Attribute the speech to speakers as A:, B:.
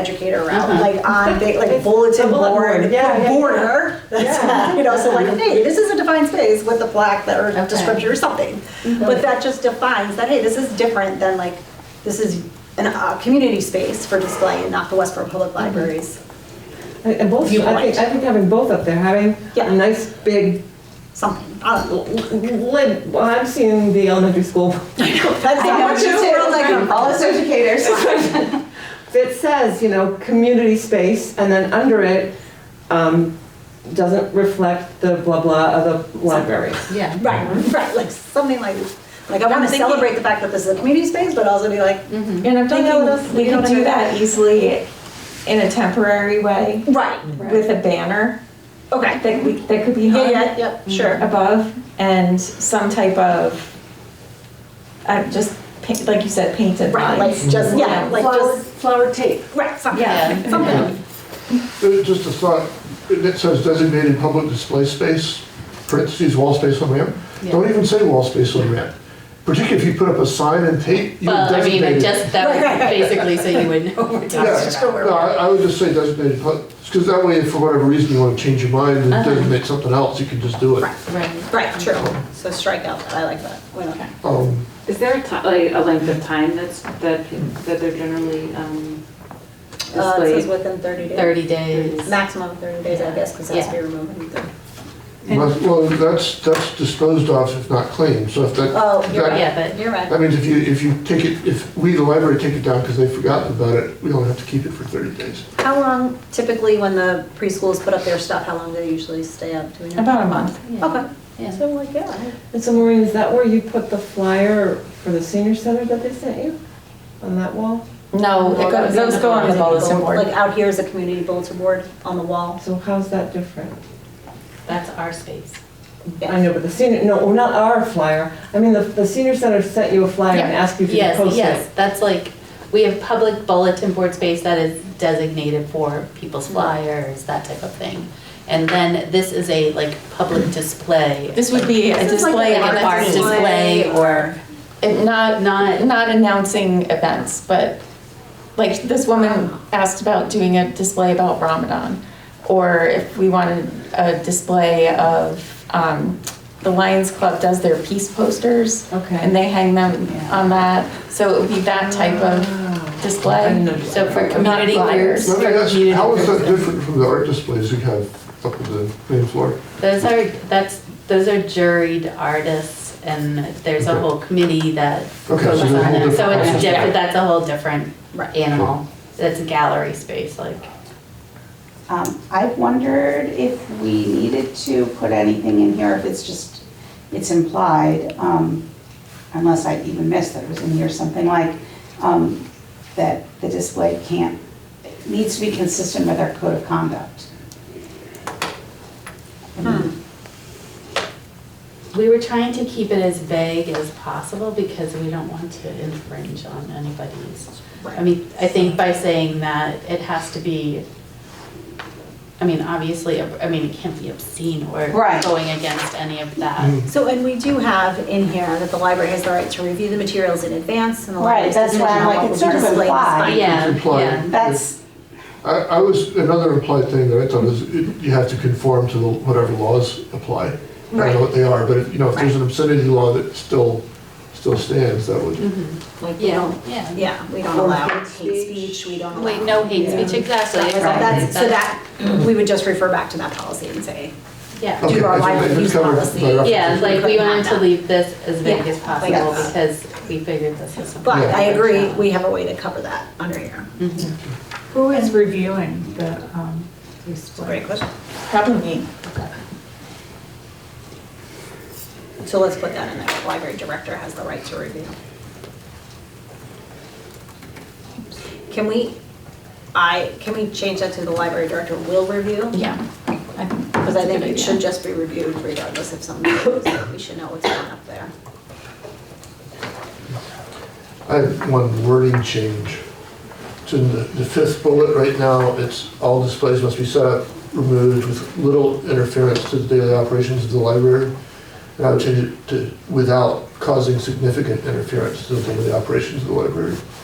A: educator route, like on, big- like bulletin
B: bulletin board,
A: board,
B: yeah, yeah,
A: border.
B: Yeah.
A: You know, so like, hey, this is a defined space with a plaque that, or
C: Okay.
A: descriptor or something. But that just defines that, hey, this is different than like, this is an, uh, community space for display and not the Westboro Public Libraries
B: And and both, I think, I think having both up there, having
A: Yeah.
B: a nice big,
A: something. I don't know.
B: l- lid- well, I'm seeing the elementary school
A: That's
C: I
A: how
C: know
A: much
C: too.
A: of the world I come from.
C: All us educators.
B: that says, you know, community space, and then under it, um, doesn't reflect the blah blah of the library.
C: Yeah.
A: Right, right, like something like, like I
D: I'm
A: want to
D: thinking- Mm-hmm.
A: celebrate the fact that this is a community space, but also be like,
D: And I'm
A: Thinking
D: thinking we
A: you know
D: can
A: what I
D: do
A: mean?
D: that easily in a temporary way
A: right,
D: with a banner
A: okay.
D: that we, that could be
A: Yeah,
D: hung.
A: yeah, yep, sure.
D: Above and some type of, uh, just paint, like you said, painted
A: Right, like
D: lines.
A: just, yeah, like
E: Flower,
A: just,
E: flower tape.
A: right, something,
D: Yeah.
A: something.
F: Uh, Just a thought, it says designated public display space, parentheses, wall space on ramp. Don't even say wall space on ramp, particularly if you put up a sign and tape, you
G: Well, I mean, I
F: designated.
G: just, that would basically so you would know what we're talking
F: Yeah,
G: about.
F: no, I I would just say designated, because that way, if for whatever reason you want to change your mind and designate something else, you can just do it.
G: Uh-huh. Right.
A: Right, true, so strike out, that. I like that, Uh, we don't care.
F: Um,
H: Is there a ti, like, a length of time that's, that, that they're generally, um,
A: Uh, it says
H: displayed?
A: within thirty days,
G: 30 days.
A: maximum of thirty days, I guess, because it has to be removed. in 30.
F: must- Well, that's, that's disposed of if not claimed, so if that.
A: Oh, you're
F: that-
A: right.
G: Yeah, but
A: You're right.
F: That means if you, if you take it, if we, the library, take it down because they've forgotten about it, we don't have to keep it for 30 days.
A: How long typically when the preschools put up their stuff, how long do they usually stay up? Do we know?
D: About a month.
A: Okay.
G: Yeah.
A: So like, yeah.
B: And so Maureen, is that where you put the flyer for the senior center that they sent you? On that wall?
A: Oh,
D: No, it go- those go on the bulletin
A: Like
D: board.
A: out here is a community bulletin board on the wall.
B: So how's that different?
G: That's our space.
B: I know, but the senior, no, well, not our flyer, I mean, the, the senior center sent you a flyer and asked you to
G: Yes,
B: post
G: yes,
B: it.
G: that's like, we have public bulletin board space that is designated for people's flyers, that type of thing. And then this is a like public display.
D: This would be a
A: This is like
D: display,
A: an
G: Like an
D: art
G: art display or,
D: and not,
G: Not-
D: not announcing events, but like this woman asked about doing a display about Ramadan, or if we wanted a display of, um, the Lions Club does their peace posters.
B: Okay.
D: And they hang them on that, so it would be that type of
B: Ah. I didn't
D: display.
B: know.
G: so for
D: Not
G: community
D: flyers.
G: groups,
F: Let
G: for
F: me ask, how is that
G: community groups.
F: different from the art displays you have up on the main floor?
G: Those are, that's, those are juried artists and there's a
F: Okay.
G: whole committee that
F: Okay, so
G: goes
F: there's a
G: on it.
F: whole
G: So
F: different
G: it's
F: process.
G: different, that's a whole different
A: Right.
G: animal. That's a gallery space, like.
C: Um, I wondered if we needed to put anything in here, if it's just, it's implied, um, unless I even missed that it was in here, something like, um, that the display can't, it needs to be consistent with our code of conduct.
A: Hmm.
G: We were trying to keep it as vague as possible because we don't want to infringe on anybody's. I mean, I think by saying that, it has to be, I mean, obviously, I mean, it can't be obscene or
C: Right.
G: going against any of that.
F: Mm.
A: So, and we do have in here that the library has the right to review the materials in advance and the
C: Right,
A: library's
C: that's
A: decision
C: why I'm
A: on
C: like,
A: what
C: it's
A: will be
C: sort of
A: displayed is
C: implied.
A: fine.
G: Yeah,
F: It's implied.
G: yeah.
C: That's,
F: I, I was, another implied thing that I thought is, it- you have to conform to the whatever laws apply. I don't know what they are, but, if, you know, if there's an obscenity law that still, still stands, that would,
A: Like, we
G: Yeah,
A: don't,
G: yeah.
A: yeah, we don't
B: Or
A: allow
B: hate
A: hate speech, we don't allow.
G: Wait, no hate speech, exactly.
A: Right,
G: exactly.
A: That's, so that, we would just refer back to that policy and say,
G: Yeah,
F: Okay,
A: do our
F: if it- if
A: library
F: it's
A: use
F: covered by
A: policy.
F: reference.
G: yeah, like we wanted to leave this as vague
A: Yeah,
G: as possible
A: like-
G: because we figured this is.
A: but
F: Yeah.
A: I agree, we have a way to cover that under here.
G: Mm-hmm.
D: Who is reviewing the
A: It's a great question.
D: Probably me.
A: So let's put that in there, The library director has the right to review. Can we, I, can we change that to the library director will review?
D: Yeah.
A: Because I think it should just be reviewed regardless if something goes, we should know what's going up there.
F: I have one wording change. It's in the, the fifth bullet right now, it's all displays must be set up, removed with little interference to the daily operations of the library. And I would change it to without causing significant interference to the daily operations of the library.